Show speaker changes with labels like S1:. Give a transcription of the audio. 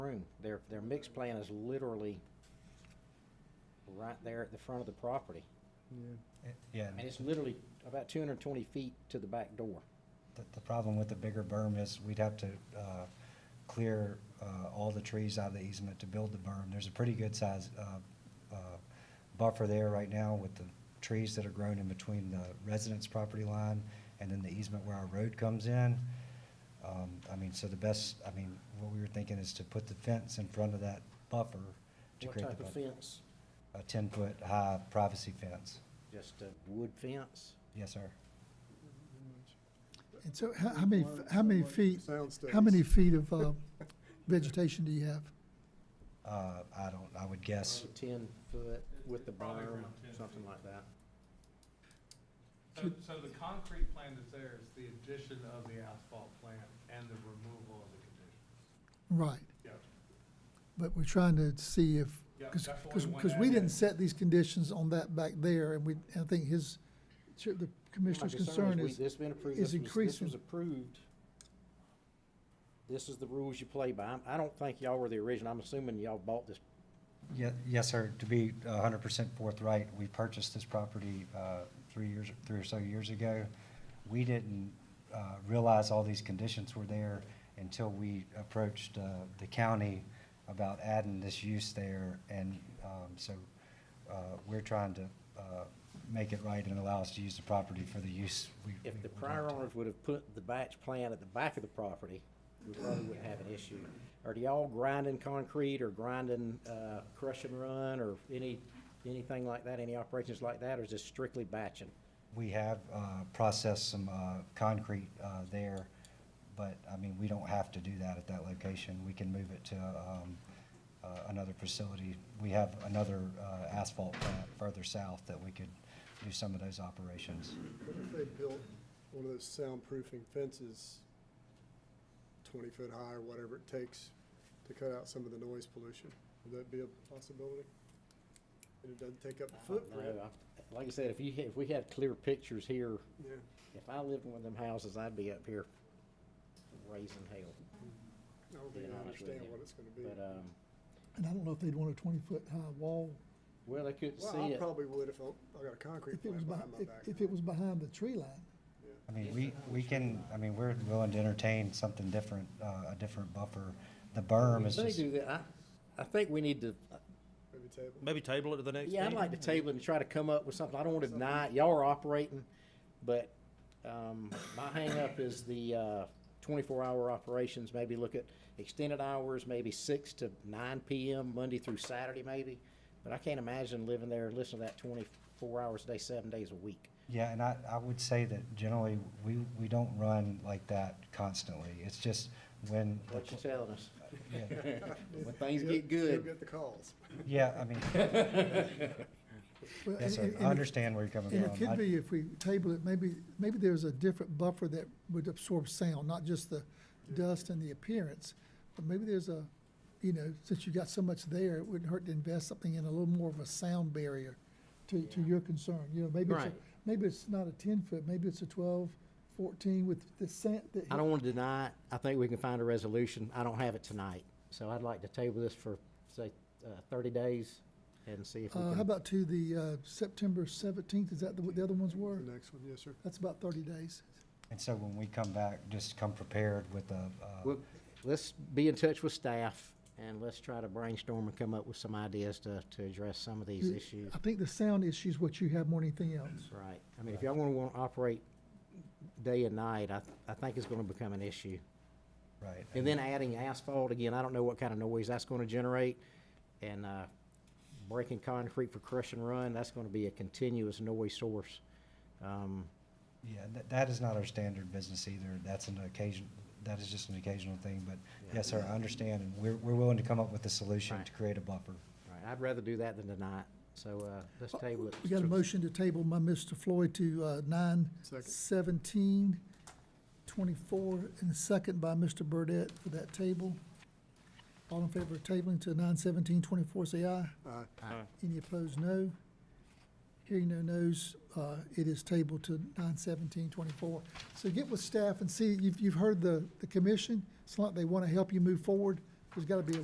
S1: their, their mix plan is literally right there at the front of the property.
S2: Yeah.
S3: It- Yeah,
S1: And it's literally about two hundred and twenty feet to the back door.
S3: the, the problem with the bigger berm is we'd have to, uh, clear, uh, all the trees out of the easement to build the berm. There's a pretty good size, uh, uh, buffer there right now with the trees that are grown in between the residence property line and then the easement where our road comes in. Um, I mean, so the best, I mean, what we were thinking is to put the fence in front of that buffer to
S1: What
S3: create the
S1: type of
S3: buffer.
S1: fence?
S3: A ten-foot high privacy fence.
S1: Just a wood fence?
S3: Yes, sir.
S4: And so how, how many, how many feet,
S2: Soundstage.
S4: how many feet of, uh, vegetation do you have?
S3: Uh, I don't, I would guess
S1: Ten foot with the berm, something like that.
S5: So, so the concrete plan that's there is the addition of the asphalt plant and the removal of the conditions.
S4: Right,
S5: Yes.
S4: but we're trying to see if,
S5: Yeah,
S4: cause,
S5: that's what we
S4: cause,
S5: want
S4: 'cause
S5: to
S4: we
S5: add
S4: didn't
S5: in.
S4: set these conditions on that back there, and we, I think his, the commissioner's
S1: My concern
S4: concern
S1: we-
S4: is,
S1: This been approved,
S4: is
S1: this was, this
S4: increasing.
S1: was approved. This is the rules you play by. I don't think y'all were the original. I'm assuming y'all bought this.
S3: Ye- Yes, sir. To be hundred percent forthright, we purchased this property uh, three years, three or so years ago. We didn't uh, realize all these conditions were there until we approached uh, the county about adding this use there. And um, so uh, we're trying to uh, make it right and allow us to use the property for the use we. we
S1: If the
S3: would like
S1: prior
S3: to.
S1: owners would have put the batch plan at the back of the property, we probably wouldn't have an issue. Are y'all grinding concrete or grinding, uh, crush and run or any, anything like that, any operations like that, or is this strictly batching?
S3: We have uh, processed some uh, concrete uh, there, but, I mean, we don't have to do that at that location. We can move it to um, uh, another facility. We have another uh, asphalt plant further south that we could do some of those operations.
S2: What if they built one of those soundproofing fences, twenty foot high or whatever it takes to cut out some of the noise pollution? Would that be a possibility? And it doesn't take up
S1: I
S2: the
S1: don't know.
S2: footprint?
S1: I- Like I said, if you, if we had clear pictures here,
S2: Yeah,
S1: if I lived in one of them houses, I'd be up here raising hell.
S2: I don't think
S1: Being
S2: I
S1: honest with
S2: understand
S1: you.
S2: what it's gonna be.
S1: But, um,
S4: and I don't know if they'd want a twenty-foot high wall,
S1: well, I couldn't
S2: Well,
S1: see
S2: I
S1: it.
S2: probably would if I, I got a concrete
S4: if it was
S2: plant
S4: behind,
S2: behind my
S4: if,
S2: back.
S4: if it was behind the tree line.
S3: I mean, we, we can, I mean, we're willing to entertain something different, uh, a different buffer. The berm
S1: If
S3: is
S1: they
S3: just,
S1: do that, I, I think we need to,
S2: Maybe table.
S6: Maybe table it to the next
S1: yeah, I'd
S6: meeting.
S1: like to
S4: Mm-hmm.
S1: table it and try to come up with something. I don't want to deny, it. y'all are operating, but, um, my hangup is the, uh, twenty-four hour operations, maybe look at extended hours, maybe six to nine PM, Monday through Saturday maybe. But I can't imagine living there, and listening to that twenty-four hours a day, seven days a week.
S3: Yeah, and I, I would say that generally, we, we don't run like that constantly. It's just when. the
S1: What you telling us?
S3: Yeah,
S1: When things
S2: You'll-
S1: get
S2: You'll
S1: good,
S2: get the calls.
S3: Yeah, I mean,
S4: Well,
S3: yes,
S4: and-
S3: sir.
S4: and-
S3: I understand where you're coming
S4: And
S3: from.
S1: um,
S4: it could
S3: I-
S4: be if we table it, maybe, maybe there's a different buffer that would absorb sound, not just the dust and the appearance. But maybe there's a, you know, since you got so much there, it wouldn't hurt to invest something in a little more of a sound barrier to, to
S1: Yeah.
S4: your concern, you know, maybe it's, a-
S1: Right.
S4: maybe it's not a ten foot, maybe it's a twelve, fourteen with the sound that.
S1: I don't want to deny it. I think we can find a resolution. I don't have it tonight. So I'd like to table this for, say, uh, thirty days and see if we
S4: Uh, how
S1: can.
S4: about to the, uh, September seventeenth, is that the- what the other ones
S2: The
S4: were?
S2: next one, yes, sir.
S4: That's about thirty days.
S3: And so when we come back, just come prepared with a, uh,
S1: Well, Let's be in touch with staff and let's try to brainstorm and come up with some ideas to, to address some of these
S4: You-
S1: issues.
S4: I think the sound issue is what you have more than anything else.
S1: Right. I mean, if y'all want to want to operate day and night, I, I think it's going to become an issue.
S3: right.
S1: And then adding asphalt, again, I don't know what kind of noise that's gonna generate, and, uh, breaking concrete for crush and run, that's gonna be a continuous noise source. Um,
S3: Yeah, that, that is not our standard business either. That's an occasion, that is just an occasional thing, but yes, sir, I understand. And we're, we're willing to come up with a solution
S1: Right.
S3: to create a buffer.
S1: right, I'd rather do that than deny it, so, uh, let's table it.
S4: We got a motion to table by Mr. Floyd to uh, nine
S2: Second.
S4: seventeen twenty-four, and a second by Mr. Burdette for that table. All in favor of tabling to nine seventeen twenty-four, say aye.
S2: Aye.
S4: Any opposed, no. Hearing no nos, uh, it is tabled to nine seventeen twenty-four. So get with staff and see, you've, you've heard the, the commission, it's not like they want to help you move forward, there's got to be a